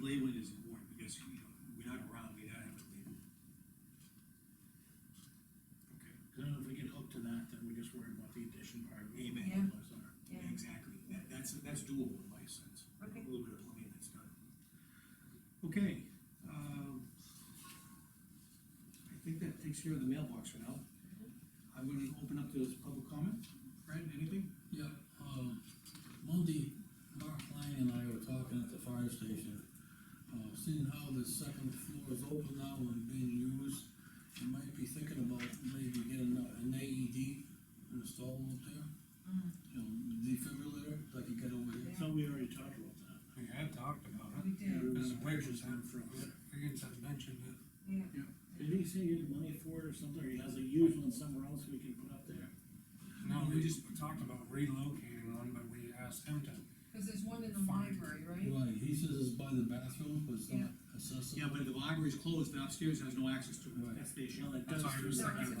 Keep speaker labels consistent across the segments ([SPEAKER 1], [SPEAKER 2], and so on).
[SPEAKER 1] labeling is important, because, you know, we're not around, we gotta have it labeled. Okay,
[SPEAKER 2] Cause then if we get hooked to that, then we just worry about the addition part. of it.
[SPEAKER 1] Amen.
[SPEAKER 3] Yeah.
[SPEAKER 1] yeah,
[SPEAKER 3] Yeah.
[SPEAKER 1] exactly, that, that's, that's doable in my sense.
[SPEAKER 3] Okay.
[SPEAKER 1] A little bit of plumbing that's done. Okay, um, I think that takes care of the mailbox for now.
[SPEAKER 3] Mm-hmm.
[SPEAKER 1] I'm gonna open up to public comment, Fred, anything?
[SPEAKER 4] Yeah, um, Monday, Mark Lyon and I were talking at the fire station. Uh, seeing how the second floor is open now and being used, you might be thinking about maybe getting a- an AED installed up there. You know, defibrillator, like you get over here.
[SPEAKER 2] I thought we already talked about that.
[SPEAKER 5] We had talked about
[SPEAKER 3] We
[SPEAKER 5] it,
[SPEAKER 3] did,
[SPEAKER 5] There's a bridges
[SPEAKER 2] Time for us.
[SPEAKER 5] Higgins had mentioned it,
[SPEAKER 3] yeah,
[SPEAKER 2] Did he say he had money for it or something, or he has a used one somewhere else we can put up there?
[SPEAKER 5] no, we just talked about relocating one, but we asked him to,
[SPEAKER 3] cause there's one in the
[SPEAKER 5] Fine.
[SPEAKER 3] library, right?
[SPEAKER 4] Right, he says it's by the bathroom, but it's not accessible.
[SPEAKER 1] Yeah, but the library's closed, and upstairs has no access to it,
[SPEAKER 4] Right.
[SPEAKER 1] that's the issue.
[SPEAKER 2] that does
[SPEAKER 5] That's why I
[SPEAKER 2] do
[SPEAKER 5] was
[SPEAKER 3] No,
[SPEAKER 2] that.
[SPEAKER 3] it's in the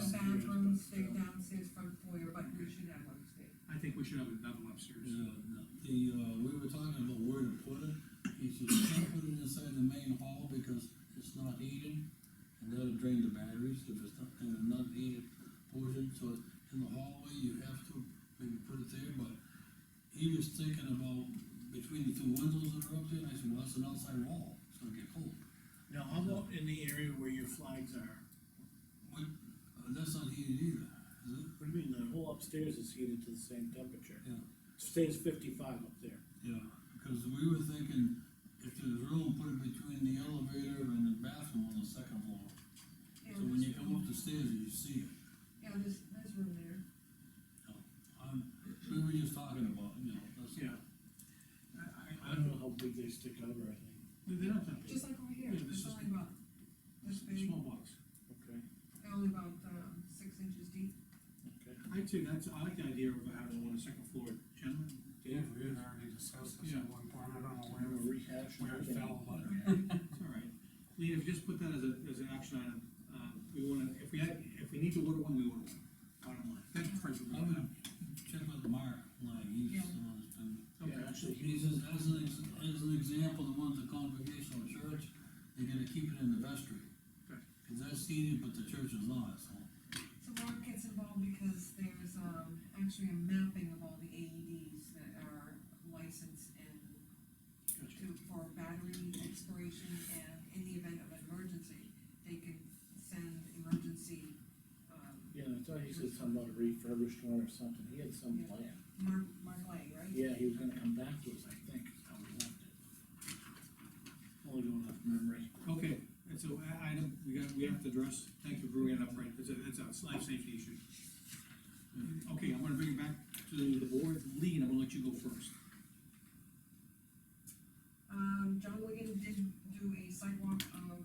[SPEAKER 3] bathrooms, they're downstairs, front foyer, but we should have one upstairs.
[SPEAKER 1] I think we should have another one upstairs.
[SPEAKER 4] Yeah, no, the, uh, we were talking about where to put it, he said, you can't put it inside the main hall because it's not heated, and that'll drain the batteries if it's not, in the not heated portion, so in the hallway, you have to maybe put it there, but he was thinking about between the two windows that are up there, and I said, well, that's an outside wall, it's gonna get cold.
[SPEAKER 2] Now, how about in the area where your flags are?
[SPEAKER 4] What, uh, that's not heated either, is it?
[SPEAKER 2] What do you mean, the whole upstairs is heated to the same temperature?
[SPEAKER 4] Yeah.
[SPEAKER 2] Stays fifty-five up there.
[SPEAKER 4] Yeah, because we were thinking, if there's room, put it between the elevator and the bathroom on the second floor.
[SPEAKER 3] Yeah,
[SPEAKER 4] So when
[SPEAKER 3] there's-
[SPEAKER 4] you come up the stairs, you see it.
[SPEAKER 3] Yeah, there's, there's room there.
[SPEAKER 4] I'm, we were just talking about, you know, that's.
[SPEAKER 1] Yeah.
[SPEAKER 2] I don't know how big they stick out or anything.
[SPEAKER 1] They don't have
[SPEAKER 3] Just like over here,
[SPEAKER 1] Yeah, this
[SPEAKER 3] it's
[SPEAKER 1] is-
[SPEAKER 3] only about, this big,
[SPEAKER 1] Small box.
[SPEAKER 2] Okay,
[SPEAKER 3] only about, um, six inches deep.
[SPEAKER 2] okay.
[SPEAKER 1] I too, that's, I like the idea of having one on the second floor, gentlemen.
[SPEAKER 5] Dave, we had already discussed this at
[SPEAKER 1] Yeah.
[SPEAKER 5] one point, I don't know
[SPEAKER 2] I'm
[SPEAKER 5] where,
[SPEAKER 2] gonna rehash.
[SPEAKER 5] where it fell, but.
[SPEAKER 1] It's all right. Lean, if you just put that as a, as an action item, um, we wanna, if we had, if we need to order one, we order one. Bottom line. That's first.
[SPEAKER 4] I would check with Mark, like, he's the one that's been.
[SPEAKER 2] Yeah, actually,
[SPEAKER 4] He
[SPEAKER 2] he's,
[SPEAKER 4] says, as an, ex- as an example, the ones at Congregational Church, they're gonna keep it in the vestry.
[SPEAKER 1] Good.
[SPEAKER 4] Cause that's heated, but the church is not, so.
[SPEAKER 3] So Mark gets involved because there's, um, actually a mapping of all the AEDs that are licensed and
[SPEAKER 1] Gotcha.
[SPEAKER 3] to, for battery expiration, and in the event of an emergency, they can send emergency, um,
[SPEAKER 2] yeah, I thought he said something about a refurbished one or something, he had some plan.
[SPEAKER 3] Mark, Mark Lang, right?
[SPEAKER 2] Yeah, he was gonna come back to us, I think, is how we left it. Only going off memory.
[SPEAKER 1] Okay, and so, i- item, we got, we have to address, thank you for bringing it up, right, it's a, it's a life safety issue. Okay, I'm gonna bring it back to the board, Lean, I'm gonna let you go first.
[SPEAKER 3] Um, John Wigan did do a sidewalk of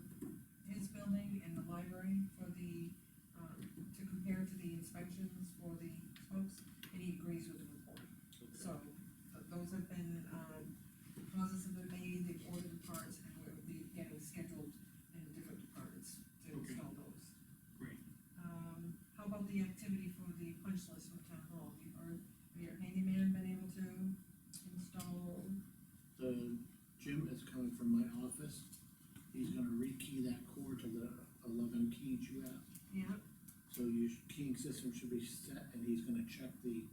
[SPEAKER 3] his building and the library for the, um, to compare to the inspections for the folks, and he agrees with the report. So, th- those have been, um, deposits have been made, they've ordered the parts, and we're be getting scheduled in the different departments to
[SPEAKER 1] Okay.
[SPEAKER 3] install those.
[SPEAKER 1] Great.
[SPEAKER 3] Um, how about the activity for the punch list for town hall, have you heard, have your handyman been able to install?
[SPEAKER 2] The Jim is coming from my office, he's gonna rekey that cord to the eleven keys you have.
[SPEAKER 3] Yeah,
[SPEAKER 2] So your keying system should be set, and he's gonna check the,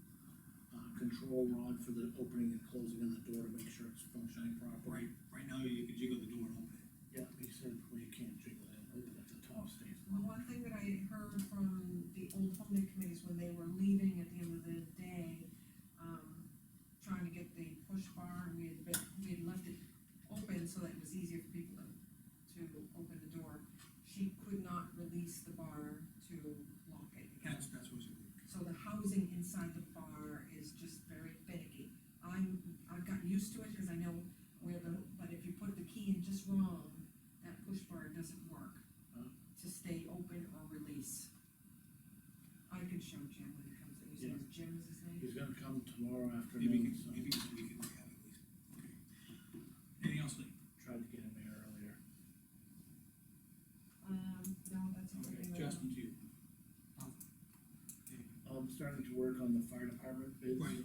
[SPEAKER 2] uh, control rod for the opening and closing of the door to make sure it's functioning properly.
[SPEAKER 1] Right, right now, you can jiggle the door and open it.
[SPEAKER 2] Yeah, he said, well, you can't jiggle it, if the top stays
[SPEAKER 3] Well,
[SPEAKER 2] low.
[SPEAKER 3] one thing that I heard from the old home day committees when they were leaving at the end of the day, um, trying to get the push bar, we had, been- we had left it open so that it was easier for people to, to open the door. She could not release the bar to lock it again.
[SPEAKER 1] That's, that's what's.
[SPEAKER 3] So the housing inside the bar is just very finicky. I'm, I've gotten used to it because I know where the, but if you put the key in just wrong, that push bar doesn't work
[SPEAKER 2] Huh.
[SPEAKER 3] to stay open or release. I can show Jim when he comes in, he
[SPEAKER 2] Yeah.
[SPEAKER 3] says Jim is his name.
[SPEAKER 2] He's gonna come tomorrow
[SPEAKER 1] Maybe you
[SPEAKER 2] afternoon,
[SPEAKER 1] can,
[SPEAKER 2] so
[SPEAKER 1] maybe we can look at it at least. Okay. Anything else, Lee?
[SPEAKER 2] tried to get him here earlier.
[SPEAKER 3] Um, no, that's okay.
[SPEAKER 1] Okay,
[SPEAKER 3] right now.
[SPEAKER 1] Justin, to you.
[SPEAKER 2] I'm starting to work on the fire department bids.
[SPEAKER 1] Right.